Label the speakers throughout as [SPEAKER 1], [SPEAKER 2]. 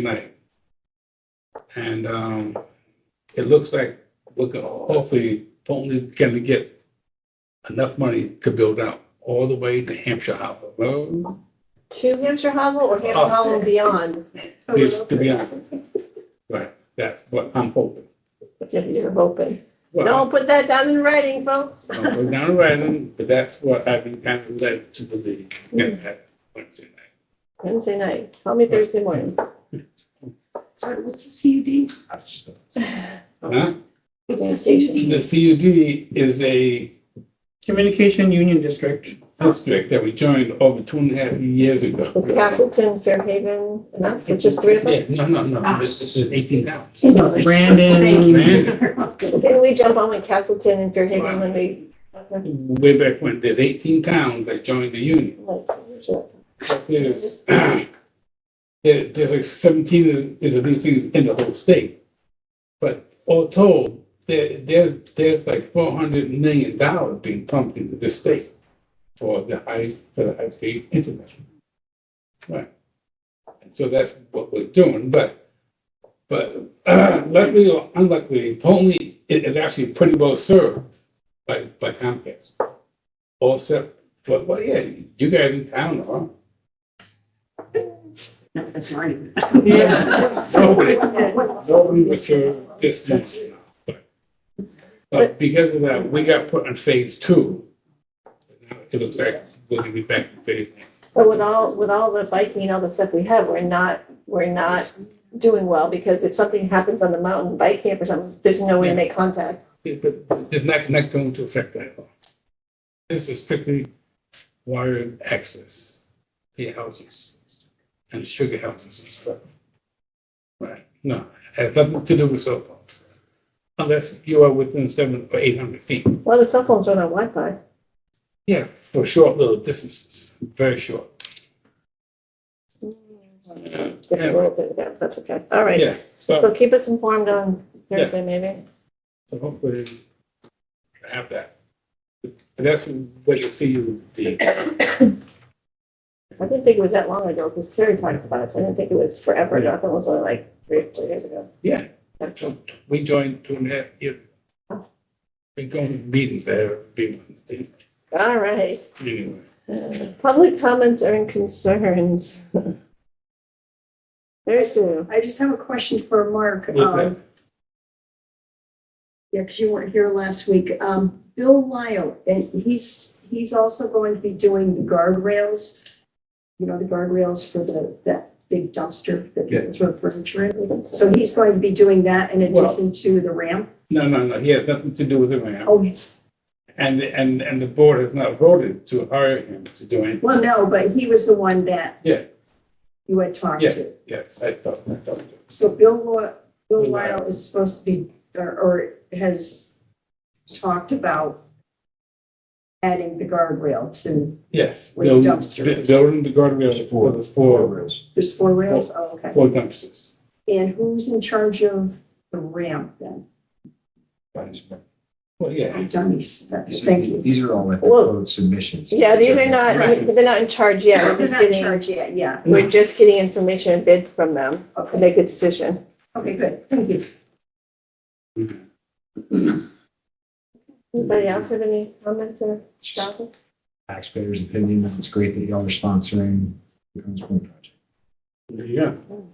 [SPEAKER 1] night. And um, it looks like we could hopefully Fulton is going to get enough money to build out all the way to Hampshire Harbor. Well,
[SPEAKER 2] To Hampshire Hollow or Hampshire
[SPEAKER 1] Oh.
[SPEAKER 2] Hollow and beyond?
[SPEAKER 1] this to be honest. Right, that's what I'm hoping.
[SPEAKER 2] If you're hoping.
[SPEAKER 1] Well,
[SPEAKER 2] Don't put that down in writing, folks.
[SPEAKER 1] I'm not down writing, but that's what I've been kind of led to believe. Yeah, that Wednesday night.
[SPEAKER 2] Wednesday night, call me Thursday morning.
[SPEAKER 3] Sorry, what's the CUD?
[SPEAKER 1] I just don't- Huh?
[SPEAKER 3] What's the
[SPEAKER 1] The
[SPEAKER 3] CUD?
[SPEAKER 1] CUD is a
[SPEAKER 3] Communication Union District.
[SPEAKER 1] district that we joined over two and a half years ago.
[SPEAKER 2] It's Castleton, Fairhaven, and that's with just three of
[SPEAKER 1] Yeah,
[SPEAKER 2] us.
[SPEAKER 1] no, no, no,
[SPEAKER 3] Ah.
[SPEAKER 1] this is eighteen towns.
[SPEAKER 3] So Brandon,
[SPEAKER 2] Didn't we jump on with Castleton and Fairhaven when we?
[SPEAKER 1] Way back when, there's eighteen towns that joined the union. There's, there- there's like seventeen is of these things in the whole state. But all told, there, there's, there's like four hundred million dollars being pumped into the state for the high, for the high speed internet. Right. And so that's what we're doing, but, but uh, luckily or unluckily, Pony is actually pretty well served by, by Comcast. All set, but, well, yeah, you guys in town are.
[SPEAKER 4] No, that's mine.
[SPEAKER 1] Yeah. Nobody, nobody was sure distance. but- But because of that, we got put on phase two. Now It looks like we're gonna be back in phase.
[SPEAKER 2] But with all, with all the biking and all the stuff we have, we're not, we're not doing well because if something happens on the mountain bike camp or something, there's no way to make contact.
[SPEAKER 1] It- but It's not, not going to affect that at all. This is strictly wired access, the houses and sugar houses and stuff. Right, no, has nothing to do with cell phones. Unless you are within seven or eight hundred feet.
[SPEAKER 2] Well, the cell phones run on Wi-Fi.
[SPEAKER 1] Yeah, for short little distances, very short. Yeah,
[SPEAKER 2] Did a little bit of that, that's okay. All right.
[SPEAKER 1] yeah, so
[SPEAKER 2] So keep us informed on Thursday, maybe.
[SPEAKER 1] so hopefully I have that. And that's what you see with the,
[SPEAKER 2] I didn't think it was that long ago because Terry talked about it. So I didn't think it was forever ago. I thought it was only like three, or four years ago.
[SPEAKER 1] yeah, we joined two and a half years. ago. Been going to meetings there, being,
[SPEAKER 2] All right.
[SPEAKER 1] anyway.
[SPEAKER 2] Uh, Public comments and concerns. Very soon.
[SPEAKER 5] I just have a question for Mark.
[SPEAKER 1] What's that?
[SPEAKER 5] Um, Yeah, because you weren't here last week. Um, Bill Lyle, and he's, he's also going to be doing the guardrails. You know, the guardrails for the, that big dumpster that
[SPEAKER 1] Yeah.
[SPEAKER 5] people throw furniture in. So he's going to be doing that in
[SPEAKER 1] Well-
[SPEAKER 5] addition to the ramp.
[SPEAKER 1] No, no, no, he has nothing to do with it, man.
[SPEAKER 5] Oh, yes.
[SPEAKER 1] And, and, and the board has not voted to hire him to do anything.
[SPEAKER 5] well, no, but he was the one that
[SPEAKER 1] Yeah.
[SPEAKER 5] you had talked
[SPEAKER 1] Yeah.
[SPEAKER 5] to.
[SPEAKER 1] Yes, I thought, I thought.
[SPEAKER 5] So Bill, Lo- Bill
[SPEAKER 1] Bill
[SPEAKER 5] Lyle is supposed to be, or- or has talked about adding the guardrail to,
[SPEAKER 1] Yes.
[SPEAKER 5] With
[SPEAKER 1] building-
[SPEAKER 5] dumpsters.
[SPEAKER 1] Building the guardrails for the four,
[SPEAKER 5] there's four rails, oh, okay.
[SPEAKER 1] four dumpsters.
[SPEAKER 5] And who's in charge of the ramp then?
[SPEAKER 1] Well,
[SPEAKER 5] Oh,
[SPEAKER 1] yeah,
[SPEAKER 5] Dummies,
[SPEAKER 6] These
[SPEAKER 5] thank
[SPEAKER 6] are,
[SPEAKER 5] you.
[SPEAKER 6] these are all like the
[SPEAKER 2] Well,
[SPEAKER 6] code submissions.
[SPEAKER 2] Yeah, these are not,
[SPEAKER 1] Right.
[SPEAKER 2] they're not in charge yet.
[SPEAKER 5] They're
[SPEAKER 2] We're just
[SPEAKER 5] not in
[SPEAKER 2] getting,
[SPEAKER 5] charge yet, yeah,
[SPEAKER 2] we're just getting information and bids from them to
[SPEAKER 5] okay,
[SPEAKER 2] make a decision.
[SPEAKER 5] okay, good, thank you.
[SPEAKER 2] Anybody else have any comments or comments?
[SPEAKER 6] Taxpayers' opinion, it's great that y'all are sponsoring the Cones Point project.
[SPEAKER 1] there you go.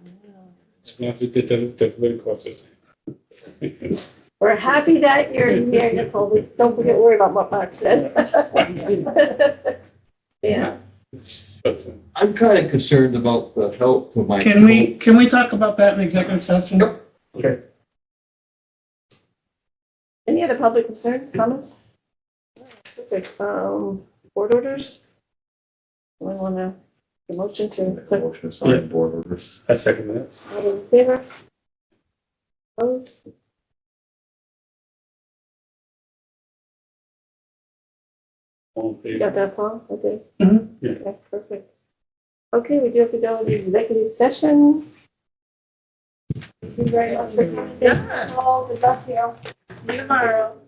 [SPEAKER 1] It's not the, the, the political office.
[SPEAKER 2] We're happy that you're here, Nicole. We- Don't forget, to worry about what Mark said. Yeah.
[SPEAKER 1] But, uh,
[SPEAKER 7] I'm kind of concerned about the health of my.
[SPEAKER 3] can we, can we talk about that in executive session?
[SPEAKER 2] Any other public concerns, comments? Perfect. Um, board orders? We want to, the motion to, so
[SPEAKER 7] Motion to
[SPEAKER 1] sign
[SPEAKER 7] board orders.
[SPEAKER 1] I second that.
[SPEAKER 2] All those in favor? Opposed?
[SPEAKER 1] All in favor?
[SPEAKER 2] You Got that, Paul? Okay.
[SPEAKER 3] Mhm.
[SPEAKER 1] Yeah.
[SPEAKER 2] Okay, Perfect. Okay, we do have to go into executive session. Thank you very much for coming. Thank you all. Good luck to you. Mm-hmm. See you tomorrow.